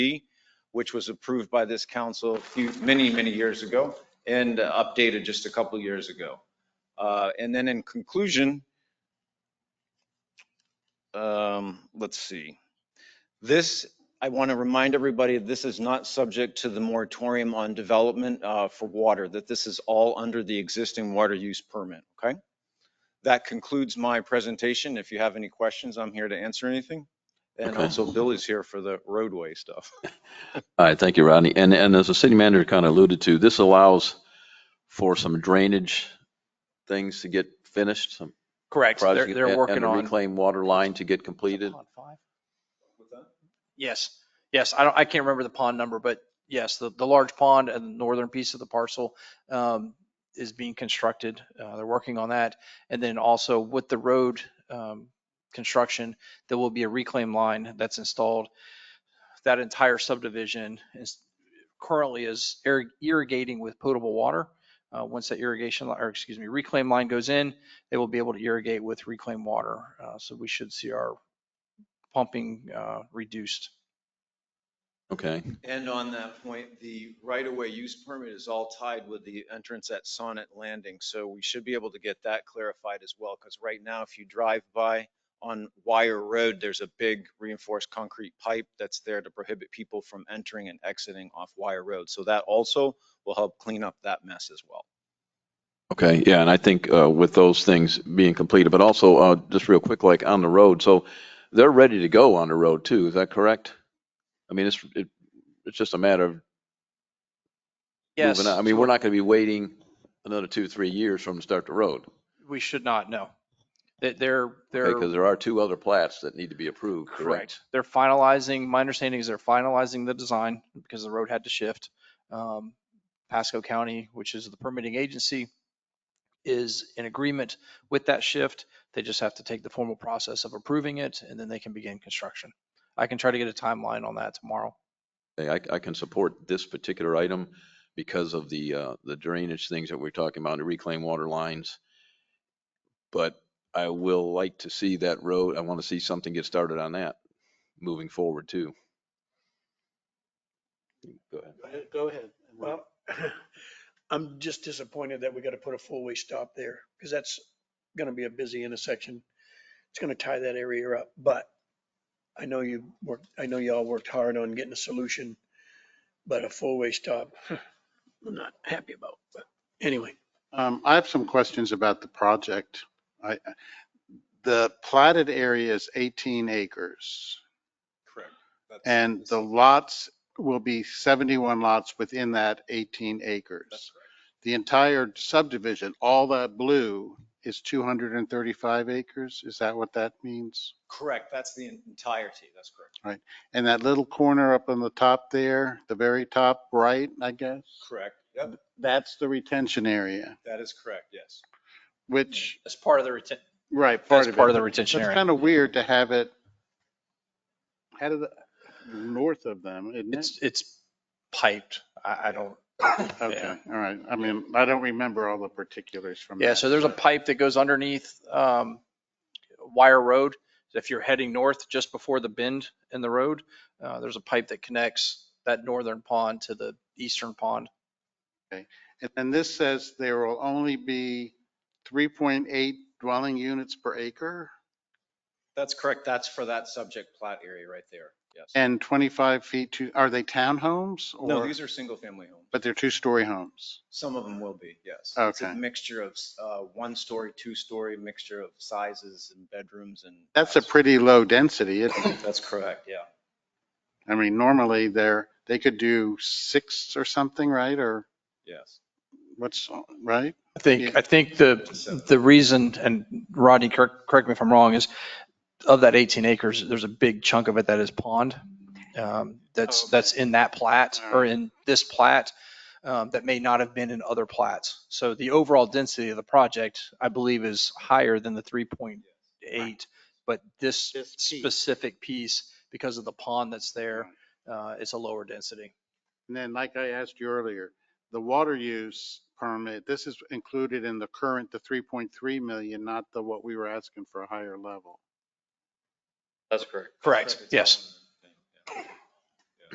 D, which was approved by this council a few, many, many years ago and updated just a couple years ago. Uh, And then in conclusion, um, let's see. This, I want to remind everybody, this is not subject to the moratorium on development uh, for water, that this is all under the existing water use permit, okay? That concludes my presentation. If you have any questions, I'm here to answer anything. And Okay. also Bill is here for the roadway stuff. All right, thank you, Rodney. And, and as the city manager kind of alluded to, this allows for some drainage things to get finished, some Correct. They're, project. they're and- working and a on, Reclaimed water line to get completed. yes, yes. I don't, I can't remember the pond number, but yes, the, the large pond and the northern piece of the parcel um, is being constructed. Uh, They're working on that. And then also with the road um, construction, there will be a reclaim line that's installed. That entire subdivision is currently is irri- irrigating with potable water. Uh, Once that irrigation, li- or excuse me, reclaim line goes in, they will be able to irrigate with reclaimed water. Uh, So we should see our pumping uh, reduced. Okay, And on that point, the right-of-way use permit is all tied with the entrance at Sonnet Landing. So we should be able to get that clarified as well, because right now, if you drive by on Wire Road, there's a big reinforced concrete pipe that's there to prohibit people from entering and exiting off Wire Road. So that also will help clean up that mess as well. okay, yeah, and I think uh, with those things being completed, but also uh, just real quick, like on the road, so they're ready to go on the road too, is that correct? I mean, it's, it- it's just a matter of Yes. moving on. I mean, we're not going to be waiting another two, three years from the start to road. We should not, no. That They're, Because they're, there are two other plats that need to be approved, correct? correct. They're finalizing, my understanding is they're finalizing the design because the road had to shift. Um, Pasco County, which is the permitting agency, is in agreement with that shift. They just have to take the formal process of approving it and then they can begin construction. I can try to get a timeline on that tomorrow. Okay, I, I can support this particular item because of the, uh, the drainage things that we're talking about, the reclaimed water lines. But I will like to see that road, I want to see something get started on that moving forward too. Go ahead. Go ahead. Well, I'm just disappointed that we got to put a four-way stop there because that's going to be a busy intersection. It's going to tie that area up, but I know you worked, I know y'all worked hard on getting a solution, but a four-way stop, I'm not happy about, but anyway. Um, I have some questions about the project. I, the platted area is 18 acres Correct. and the lots will be 71 lots within that 18 acres. The entire subdivision, all that blue is 235 acres. Is that what that means? Correct. That's the entirety. That's correct. And that little corner up on the top there, the very top right, I guess, Correct. Yep, that's the retention area, that is correct. Yes. which, That's part of the retention. right, part That's of it. part of the retention It's area. kind of weird to have it head of the, north of them, isn't it? It's, it's piped. I, I don't. Okay, all right. I mean, I don't remember all the particulars from that. Yeah, so there's a pipe that goes underneath um, Wire Road. If you're heading north just before the bend in the road, uh, there's a pipe that connects that northern pond to the eastern pond. And then this says there will only be 3.8 dwelling units per acre That's correct. That's for that subject plot area right there. Yes. and 25 feet to, are they townhomes? No, or- these are single-family homes. But they're two-story homes. Some of them will be, yes. It's a Okay. mixture of uh, one-story, two-story, mixture of sizes and bedrooms and. That's a pretty low density, isn't it? That's correct, yeah. I mean, normally they're, they could do six or something, right? Or Yes. what's, right? I think, I think the, the reason, and Rodney, correct, correct me if I'm wrong, is of that 18 acres, there's a big chunk of it that is pond. um, Oh, That's, that's in that plat or in this plat um, that may not have been in other plats. So the overall density of the project, I believe, is higher than the 3.8. But this This piece. specific piece, because of the pond that's there, uh, it's a lower density. And then, like I asked you earlier, the water use permit, this is included in the current, the 3.3 million, not the, what we were asking for a higher level. Correct, yes.